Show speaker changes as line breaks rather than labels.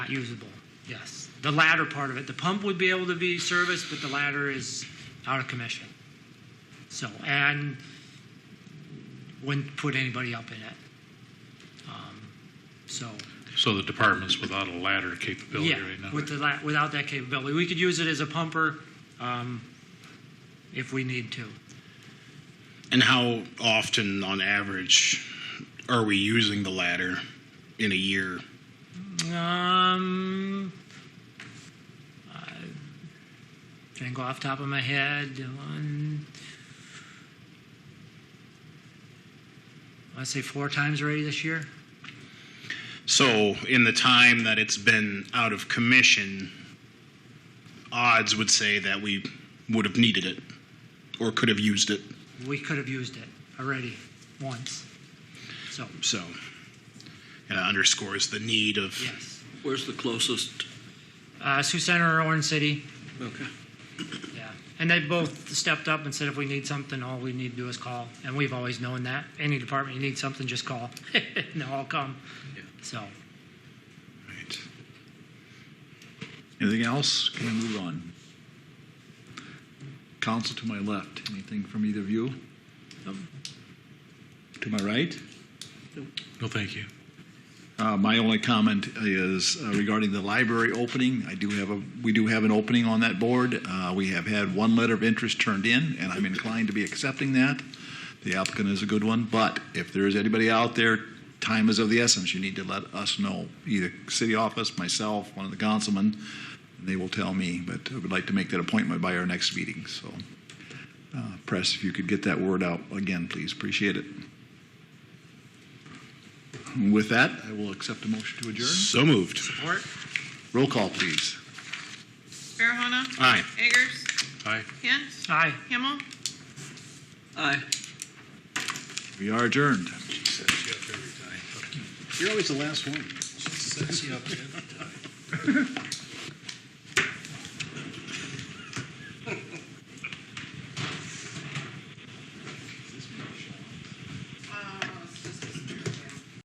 Not usable, yes. The latter part of it, the pump would be able to be serviced, but the latter is out of commission. So, and wouldn't put anybody up in it. Um, So,
So the department's without a ladder capability
yeah,
right now?
with the, la- without that capability, we could use it as a pumper um, if we need to.
And how often, on average, are we using the ladder in a year?
Um, I think off the top of my head, one, I'd say four times already this year.
So, in the time that it's been out of commission, odds would say that we would have needed it or could have used it.
We could have used it already once. So,
So, it underscores the need of.
yes.
Where's the closest?
Uh, Sioux Center or Orange City,
Okay.
yeah. And they both stepped up and said if we need something, all we need to do is call. And we've always known that. Any department, you need something, just call. and they'll all come.
Yeah.
So.
Right. Anything else? Can we move on? Council to my left, anything from either of you? To my right?
No, thank you.
Uh, My only comment is uh, regarding the library opening. I do have a, we do have an opening on that board. Uh, We have had one letter of interest turned in, and I'm inclined to be accepting that. The applicant is a good one, but if there is anybody out there, time is of the essence. You need to let us know, either city office, myself, one of the councilmen, and they will tell me, but I would like to make that appointment by our next meeting, so. uh, Press, if you could get that word out again, please, appreciate it. With that, I will accept a motion to adjourn.
So moved.
Support?
Roll call, please.
Farahona?
Aye.
Eggers?
Aye.
Hint?
Aye.
Himmel?
Aye.
We are adjourned.
You're always the last one.